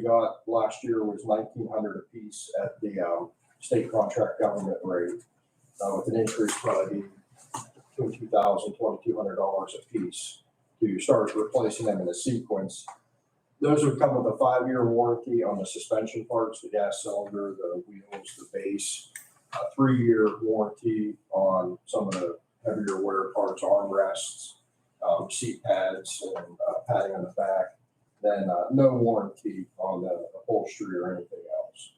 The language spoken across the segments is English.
we got last year was nineteen hundred apiece at the, um, state contract government rate. Uh, with an increase probably between two thousand, twenty-two hundred dollars apiece to start replacing them in a sequence. Those would come with a five-year warranty on the suspension parts, the gas cylinder, the wheels, the base. A three-year warranty on some of the heavier wear parts, armrests, um, seat pads and uh, padding on the back. Then, uh, no warranty on the upholstery or anything else.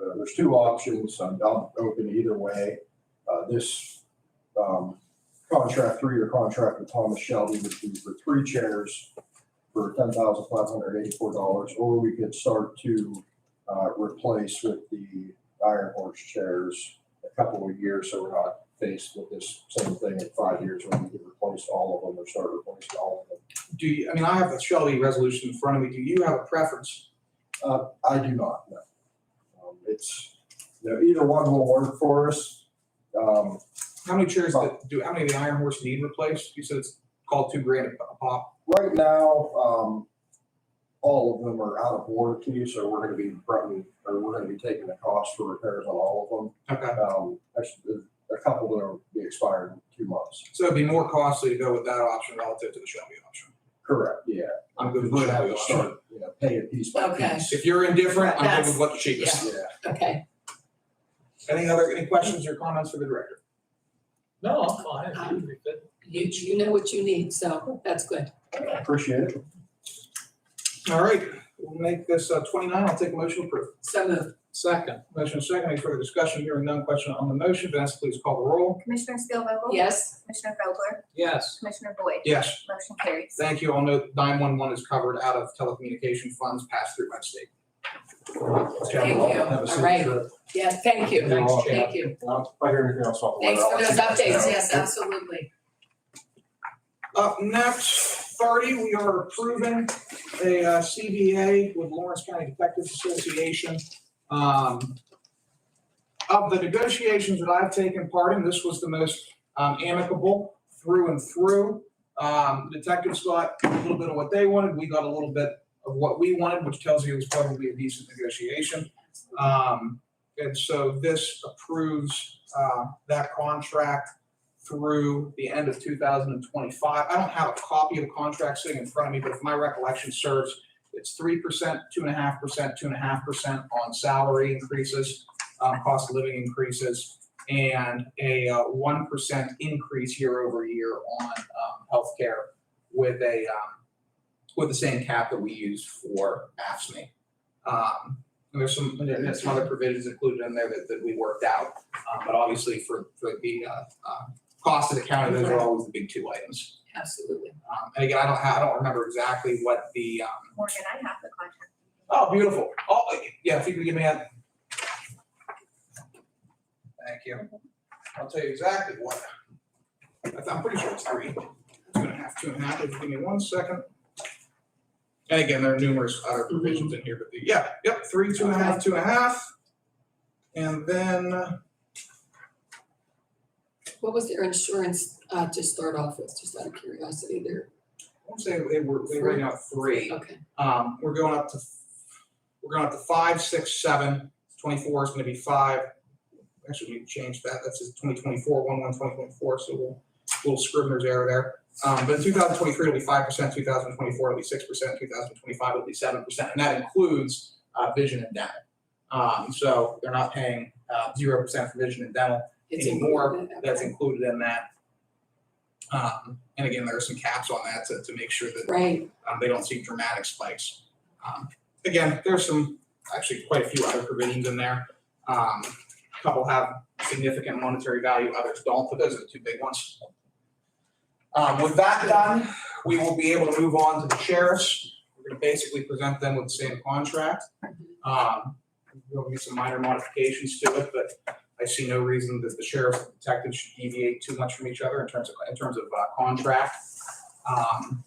Uh, there's two options. I'm, I'm open either way. Uh, this, um, contract, three-year contract with Thomas Shelby would be for three chairs for ten thousand five hundred eighty-four dollars, or we could start to, uh, replace with the Iron Horse chairs a couple of years, so we're not faced with this same thing in five years when we could replace all of them or start replacing all of them. Do you, I mean, I have the Shelby resolution in front of me. Do you have a preference? Uh, I do not know. Um, It's, you know, either one will work for us. Um, How many chairs that do, how many of the Iron Horse need replaced? You said it's called two grand a pop. right now, um, all of them are out of warranty, so we're gonna be fronting, or we're gonna be taking the cost for repairs on all Okay, of them. Um, actually, there's a couple that are be expired in two months. so it'd be more costly to go with that option relative to the Shelby option. Correct, yeah. I'm good with the We're gonna have Shelby to option. start, you know, pay a piece by Okay. piece. If you're indifferent, I'm good with That's- what the cheapest. Yeah. Okay, Any other, any questions or comments for the director? No, I'm fine. It's good. you, you know what you need, so that's good. I Appreciate it. All right, we'll make this uh, twenty-nine. I'll take a motion to approve. So moved. Second, motion second. Any further discussion? Hearing none. Question on the motion. Vanessa, please call the roll. Commissioner Steelvogel? Yes, Commissioner Vogler? Yes, Commissioner Boyd? Yes. Motion carries. Thank you. I'll note nine-one-one is covered out of telecommunication funds passed through by state. Thank you. Have a safe All right. trip. yeah, thank you. Thanks, Chad. Thank you. If I hear anything else, I'll. Thanks for those I'll- updates, yes, absolutely. Up next, thirty, we are approving a uh, CBA with Lawrence County Detectives Association. Um, Of the negotiations that I've taken part in, this was the most um, amicable through and through. Um, Detectives got a little bit of what they wanted, we got a little bit of what we wanted, which tells you it was probably a decent negotiation. Um, And so this approves uh, that contract through the end of 2025. I don't have a copy of the contract sitting in front of me, but if my recollection serves, it's 3%, 2.5%, 2.5% on salary increases, um, cost of living increases, and a uh, 1% increase year over year on um, healthcare with a, um, with the same cap that we used for AFSMI. Um, and There's some, there's some other provisions included in there that, that we worked out, um, but obviously for, for the uh, uh, cost of the county, those are always the big two items. Absolutely. Um, and again, I don't have, I don't remember exactly what the, um, Morgan, I have the contract. oh, beautiful. Oh, yeah, if you could give me that. Thank you. I'll tell you exactly what. I- I'm pretty sure it's three, two and a half, two and a half. If you give me one second. And again, there are numerous other provisions in here, but the, yeah, yep, three, two and a half, two and a half. And then, uh, What was their insurance, uh, to start off with, just out of curiosity there? I won't say they were, they were out three. Okay, Um, we're going up to, we're going up to five, six, seven. Twenty-four is gonna be five. Actually, we changed that. That's just twenty twenty-four, one, one, twenty twenty-four, so we'll, little scrivener's error there. Um, but in two thousand twenty-three, it'll be five percent, two thousand twenty-four, it'll be six percent, two thousand twenty-five, it'll be seven percent, and that includes, uh, vision and dental. Um, so they're not paying, uh, zero percent for vision and dental. it's Any in more there, That's okay. included in that. Um, and again, there are some caps on that to, to make sure that Right, um, they don't see dramatic spikes. Um, again, there's some, actually quite a few other provisions in there. Um, a couple have significant monetary value, others don't, but those are the two big ones. Um, with that done, we will be able to move on to the sheriffs. We're gonna basically present them with the same contract. Um, there'll be some minor modifications to it, but I see no reason that the sheriff and detective should deviate too much from each other in terms of, in terms of, uh, contract. Um,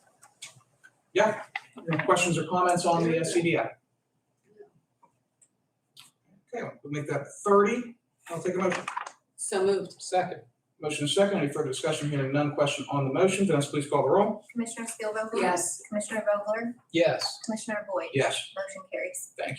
any questions or comments on the uh, CDI? Okay, we'll make that thirty. I'll take a motion. so moved. second, Motion second, any further discussion, hearing none, question on the motion, Vanessa, please call the roll. Commissioner Spielvogel? Yes. Commissioner Vogler? Yes. Commissioner Boyd? Yes. Motion carries. Thank you.